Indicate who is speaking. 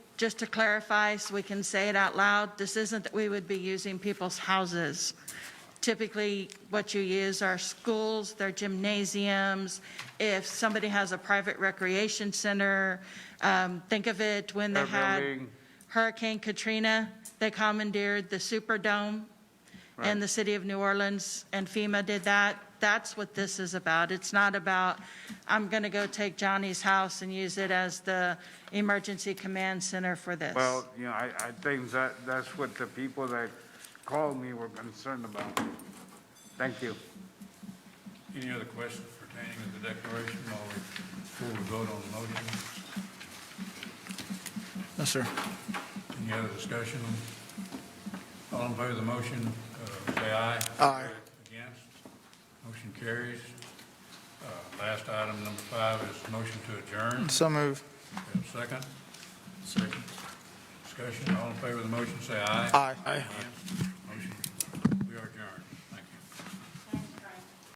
Speaker 1: just to clarify, so we can say it out loud, this isn't that we would be using people's houses. Typically, what you use are schools, their gymnasiums, if somebody has a private recreation center, um, think of it when they
Speaker 2: Their
Speaker 1: had
Speaker 2: building.
Speaker 1: Hurricane Katrina, they commandeered the Superdome
Speaker 2: Right.
Speaker 1: and the city of New Orleans and FEMA did that. That's what this is about. It's not about, I'm going to go take Johnny's house and use it as the emergency command center for this.
Speaker 2: Well, you know, I, I think that, that's what the people that called me were concerned about. Thank you.
Speaker 3: Any other questions pertaining to the declaration while we, before we vote on the motion?
Speaker 4: No, sir.
Speaker 3: Any other discussion? All in favor of the motion, uh, say aye.
Speaker 4: Aye.
Speaker 3: Against? Motion carries. Uh, Last item, number five, is motion to adjourn.
Speaker 4: So move.
Speaker 3: We have a Second? Second. Discussion, all in favor of the motion, say aye.
Speaker 4: Aye.
Speaker 3: Against?